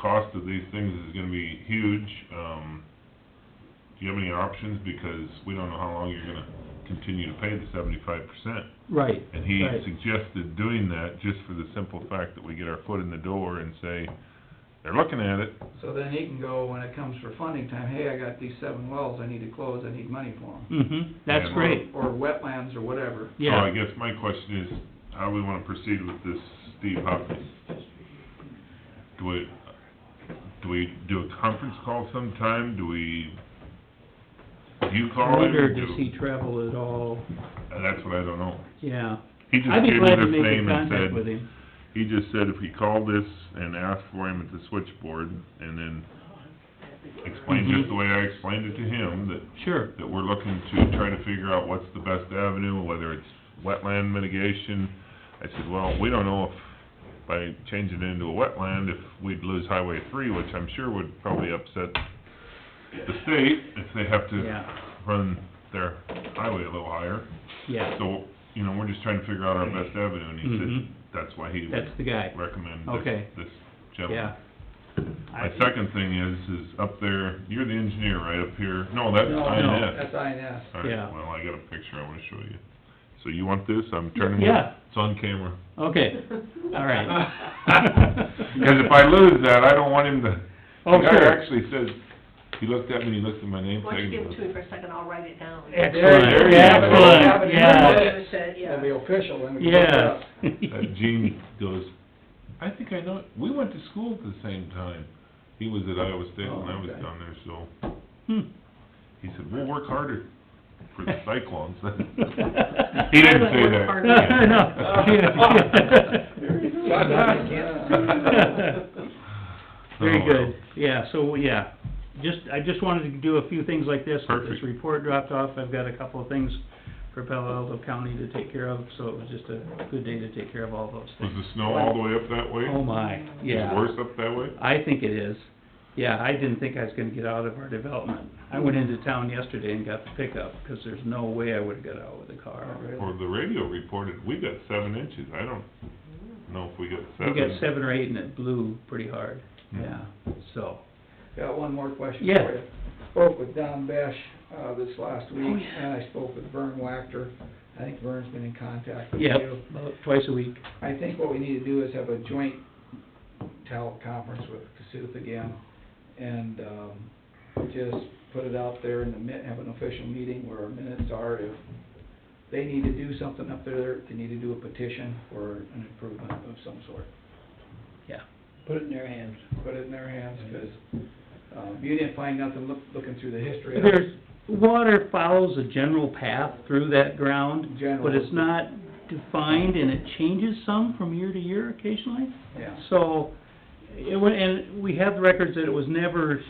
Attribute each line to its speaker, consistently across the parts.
Speaker 1: cost of these things is gonna be huge, um, do you have any options, because we don't know how long you're gonna continue to pay the seventy-five percent.
Speaker 2: Right,
Speaker 1: And he
Speaker 2: Right.
Speaker 1: suggested doing that just for the simple fact that we get our foot in the door and say, they're looking at it,
Speaker 3: So then he can go, when it comes for funding time, hey, I got these seven wells I need to close, I need money for them.
Speaker 2: mm-hmm, that's
Speaker 1: Yeah.
Speaker 2: great,
Speaker 3: Or wetlands or whatever.
Speaker 1: So I
Speaker 2: yeah.
Speaker 1: guess my question is, how do we wanna proceed with this Steve Hopkins? Do we, do we do a conference call sometime, do we, do you
Speaker 2: I
Speaker 1: call him?
Speaker 2: wonder,
Speaker 1: Do-
Speaker 2: does he travel at all?
Speaker 1: Uh, That's what I don't know.
Speaker 2: Yeah.
Speaker 1: He just
Speaker 2: I'd be
Speaker 1: gave me
Speaker 2: glad to
Speaker 1: this
Speaker 2: make a
Speaker 1: name and
Speaker 2: contact with
Speaker 1: said,
Speaker 2: him.
Speaker 1: he just said if he called this and asked for him at the switchboard, and then explained
Speaker 2: Mhm.
Speaker 1: just the way I explained it to him, that
Speaker 2: Sure,
Speaker 1: that we're looking to try to figure out what's the best avenue, whether it's wetland mitigation. I said, well, we don't know if, by changing it into a wetland, if we'd lose Highway three, which I'm sure would probably upset the state if they have to
Speaker 2: yeah,
Speaker 1: run their highway a little higher.
Speaker 2: yeah,
Speaker 1: So, you know, we're just trying to figure out our best avenue, and
Speaker 2: Mhm.
Speaker 1: he said, that's why he
Speaker 2: that's
Speaker 1: would
Speaker 2: the guy,
Speaker 1: recommend
Speaker 2: Okay.
Speaker 1: this, this gentleman.
Speaker 2: yeah.
Speaker 1: My second thing is, is up there, you're the engineer right up here, no, that's
Speaker 3: No,
Speaker 1: INS.
Speaker 3: That's INS.
Speaker 1: All right,
Speaker 2: Yeah.
Speaker 1: well, I got a picture I wanna show you. So you want this? I'm turning it.
Speaker 2: Yeah.
Speaker 1: It's on camera.
Speaker 2: Okay, all right.
Speaker 1: Cause if I lose that, I don't want him to,
Speaker 2: Oh,
Speaker 1: the guy
Speaker 2: sure.
Speaker 1: actually says, he looked at me, and he looked at my name
Speaker 4: Why don't
Speaker 1: tag. and he
Speaker 4: you give it
Speaker 1: goes,
Speaker 4: to me for a second, I'll write it down.
Speaker 2: Excellent,
Speaker 1: There you go.
Speaker 2: excellent, yeah,
Speaker 4: It said,
Speaker 3: It'll
Speaker 4: yeah.
Speaker 3: be official, then we can look it
Speaker 2: yes.
Speaker 3: up.
Speaker 1: That Gene goes, I think I know, it. we went to school at the same time. He was at Iowa State when I was
Speaker 3: Oh, okay.
Speaker 1: down there, so,
Speaker 2: Hmm.
Speaker 1: he said, we'll work harder for the cyclones. He
Speaker 2: No,
Speaker 1: didn't say
Speaker 4: I
Speaker 1: that.
Speaker 4: would work harder.
Speaker 2: yeah, yeah. Very
Speaker 1: Oh, well.
Speaker 2: good, yeah, so, yeah, just, I just wanted to do a few things like this. Get This
Speaker 1: Perfect.
Speaker 2: report dropped off, I've got a couple of things for Palo Alto County to take care of, so it was just a good day to take care of all those
Speaker 1: Was
Speaker 2: things.
Speaker 1: the snow all the way up that way?
Speaker 2: Oh my,
Speaker 1: Is it
Speaker 2: yeah,
Speaker 1: worse up that way?
Speaker 2: I think it is, yeah, I didn't think I was gonna get out of our development. I went into town yesterday and got the pickup, 'cause there's no way I would've got out with a car.
Speaker 1: Or the radio reported, we got seven inches, I don't know if we got
Speaker 2: We
Speaker 1: seven.
Speaker 2: got seven or eight and it blew pretty hard,
Speaker 1: Hmm.
Speaker 2: yeah, so,
Speaker 3: Got one more question for you.
Speaker 2: Yeah.
Speaker 3: Spoke with Don Besh, uh, this last week,
Speaker 2: Oh, yeah.
Speaker 3: and I spoke with Vern Wachter. I think Vern's been in contact with
Speaker 2: yeah,
Speaker 3: you.
Speaker 2: about twice a week.
Speaker 3: I think what we need to do is have a joint talent conference with Cassuth again, and, um, just put it out there in the min, have an official meeting where our minutes are, if they need to do something up there, they need to do a petition for an improvement of some sort.
Speaker 2: Yeah.
Speaker 3: Put it in their hands. Put it in their hands, 'cause, um, you didn't find nothing look, looking through the history of it.
Speaker 2: There's, water follows a general path through that ground,
Speaker 3: General.
Speaker 2: but it's not defined and it changes some from year to year occasionally.
Speaker 3: Yeah,
Speaker 2: So, it, wa- and we have records that it was never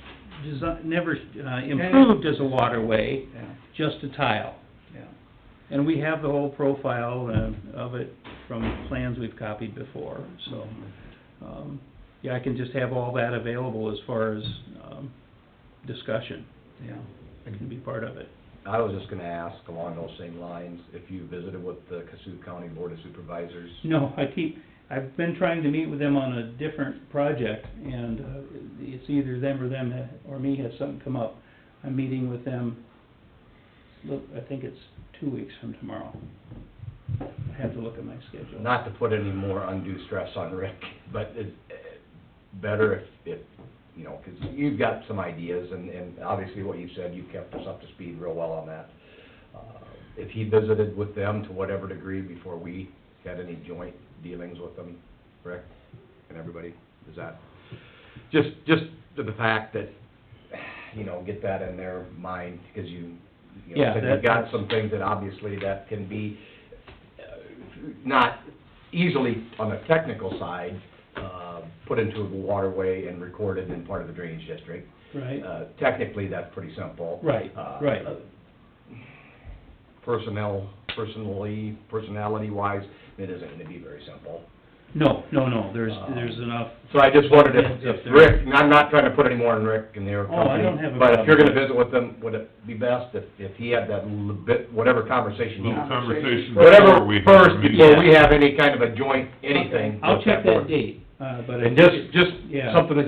Speaker 2: desi never uh, improved as a waterway,
Speaker 3: yeah,
Speaker 2: just a tile.
Speaker 3: yeah.
Speaker 2: And we have the whole profile uh, of it from plans we've copied before, so, um, yeah, I can just have all that available as far as, um, discussion.
Speaker 3: Yeah.
Speaker 2: I can be part of it.
Speaker 5: I was just gonna ask along those same lines, if you visited with the Cassuth County Board of Supervisors?
Speaker 2: No, I keep, I've been trying to meet with them on a different project, and uh, it's either them or them, ha- or me has something come up. I'm meeting with them, look, I think it's two weeks from tomorrow. I have to look at my schedule.
Speaker 5: Not to put any more undue stress on Rick, but it's eh, better if, if, you know, 'cause you've got some ideas, and, and obviously what you said, you kept us up to speed real well on that. Uh, If he visited with them to whatever degree before we had any joint dealings with them, Rick and everybody, is that, just, just the the fact that, you know, get that in their mind, 'cause you,
Speaker 2: Yeah,
Speaker 5: you know, said
Speaker 2: that-
Speaker 5: you've got some things that obviously that can be, uh, not easily on the technical side, uh, put into a waterway and recorded in part of the drainage district.
Speaker 2: Right,
Speaker 5: Uh, Technically, that's pretty simple.
Speaker 2: Right,
Speaker 5: Uh,
Speaker 2: right.
Speaker 5: Personnel, personally, personality-wise, it isn't gonna be very simple.
Speaker 2: no, no, no, there's,
Speaker 5: Uh,
Speaker 2: there's enough,
Speaker 5: So I just wondered if,
Speaker 2: It's up
Speaker 5: if
Speaker 2: there.
Speaker 5: Rick, and I'm not trying to put any more on Rick and their
Speaker 2: Oh, I
Speaker 5: company.
Speaker 2: don't have a
Speaker 5: But if you're
Speaker 2: problem.
Speaker 5: gonna visit with them, would it be best if, if he had that little bit, whatever conversation he
Speaker 1: Little conversation
Speaker 3: Conversation.
Speaker 1: before
Speaker 5: whatever,
Speaker 1: we. have our
Speaker 5: first,
Speaker 1: meeting.
Speaker 5: before we have any kind of a joint, anything.
Speaker 2: I'll
Speaker 5: with
Speaker 2: check
Speaker 5: board.
Speaker 2: that date, uh, but I
Speaker 5: And
Speaker 2: think
Speaker 5: just,
Speaker 2: it's-
Speaker 5: just
Speaker 2: Yeah.
Speaker 5: something that